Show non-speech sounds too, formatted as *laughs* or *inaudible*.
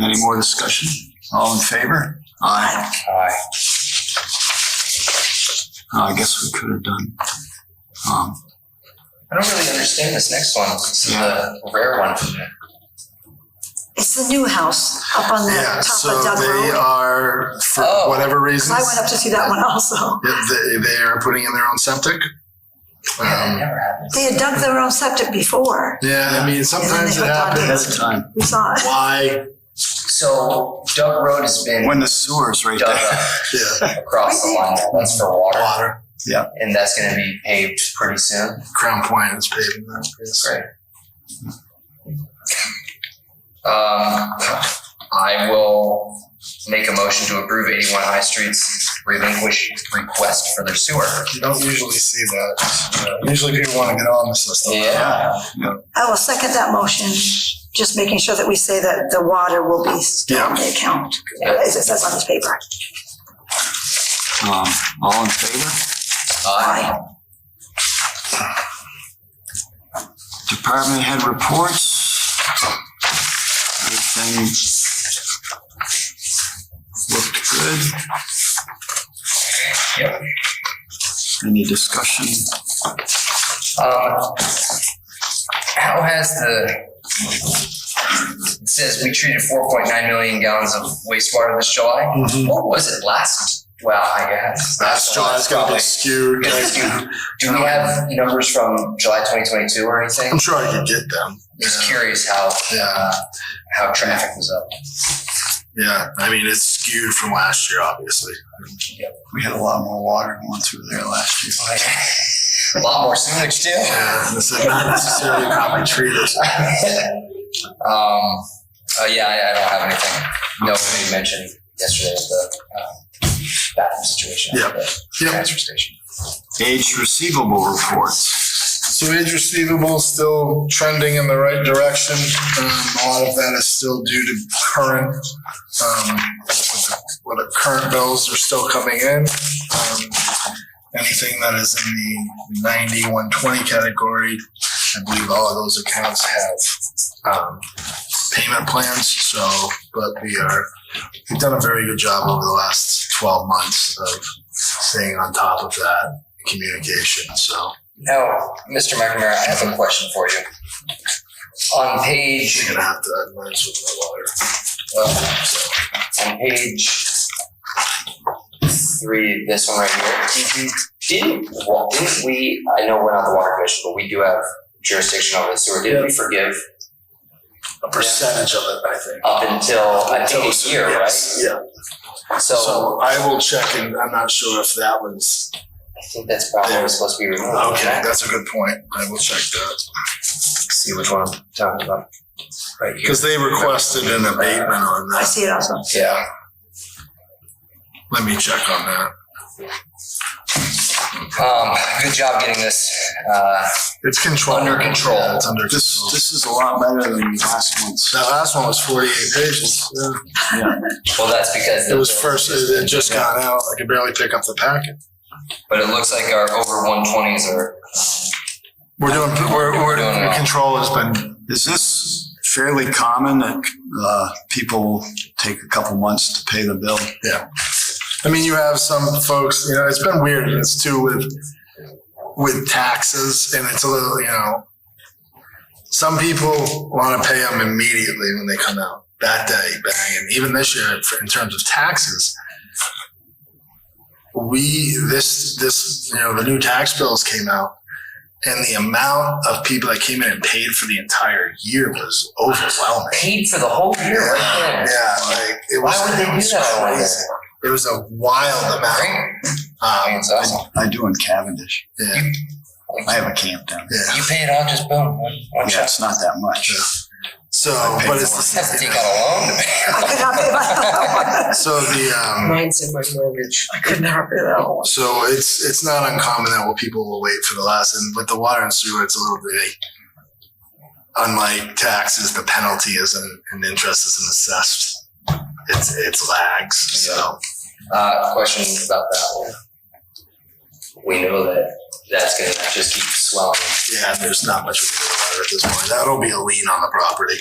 Any more discussion? All in favor? Aye. Aye. Uh, I guess we could have done. Um, I don't really understand this next one. This is a rare one for me. It's the new house up on the Yeah, top of so Dug they uh, Road. are, for Oh. whatever Because I went reasons, up to see that one also. they, they are putting in their own septic. Yeah, it Um, never happens. They had dug their own septic before. yeah, I mean, sometimes it hooked on to happens. that's time. We saw it. Why? So Doug Road has been When the sewer's right dug there. up Yeah, across the line. That's for water, water, and that's going to be paved pretty soon. Crown Point is paving that. That's great. Um, I will make a motion to approve 81 High Street's relinquish request for their sewer. You don't usually see that. Uh, Usually people want to get on the system. Yeah. I will second that motion, just making sure that we say that the water will be still on the account, as it says on this paper. Um, all in favor? Aye. Department head reports. Everything looked good. Yep. Any discussion? Um, how has the, it says we treated four point nine million gallons of wastewater this July. Mhm. What was it last? Well, I guess. Last July's gonna be Probably. skewed. like- Do do we have numbers from July twenty twenty-two or anything? I'm sure I could get them. Just Yeah. curious how, Yeah, uh, how traffic was up. yeah. I mean, it's skewed from last year, obviously. We had a lot more water going through there last year. A lot more sewage *laughs* too. Yeah, this is not necessarily properly treated. Um, uh, yeah, I, I don't have anything. No, you mentioned yesterday the, um, bathroom situation. Yeah. at the Yep. Transfer station. Age receivable reports. So age receivable still trending in the right direction. Um, a lot of that is still due to current, um, what the current bills are still coming in. Um, Anything that is in the ninety, one twenty category, I believe all of those accounts have, um, payment plans, so, but we are, we've done a very good job over the last twelve months of staying on top of that communication, so. Now, Mr. McNamara, I have a question for you. On page, You're gonna have to advise with my lawyer. uh, on page three, this one right here. Didn't, well, didn't we, I know we're not the water commission, but we do have jurisdiction over the sewer. Didn't we forgive A percentage of it, I think. up until, I think, a year, right? Yes, Yeah, So so I will check and I'm not sure if that was, I think that's probably what was supposed to be removed. okay, that's a good point. I will check that. See which one I'm talking about. Right here. Cause they requested an abatement on I that. see it also. Yeah. Let me check on that. Um, good job getting this, uh, It's controlled. Under control. Yeah, It's under This, control. this is a lot better than last month's. That last one was forty-eight pages. Yeah. well, that's because. It was first, it had just gone out. I could barely pick up the packet. But it looks like our over one twenties are. We're doing, we're, Doing we're, well. control has been, Is this fairly common that uh, people take a couple months to pay the bill? I mean, you have some folks, you know, it's been weird. and It's too with with taxes, and it's a little, you know, some people want to pay them immediately when they come out that day, bang. And even this year, for- in terms of taxes, we this this you know the new tax bills came out, and the amount of people that came in and paid for the entire year was overwhelming. Paid for the whole year right there. Yeah, like it was. Why would they it do was that? I wonder? crazy. It was a wild amount. I mean, Um, it's awesome. I do in Cavendish. yeah, I have a camp down there. yeah. You pay it off, just boom, one, one Yeah, shot. it's not that much. So, I paid but it's Just have to take out a loan to pay. I could not pay my, *laughs* *laughs* so the um, Mine's in my mortgage. I could never pay that one. so it's it's not uncommon that well people will wait for the last, and with the water and sewer, it's a little bit. like, Unlike taxes, the penalty isn't, and interest isn't assessed. It's it's lags. So Uh, question about that one. We know that that's gonna just keep swelling. yeah, there's not much we can do about at this point. That'll be a lien on the property.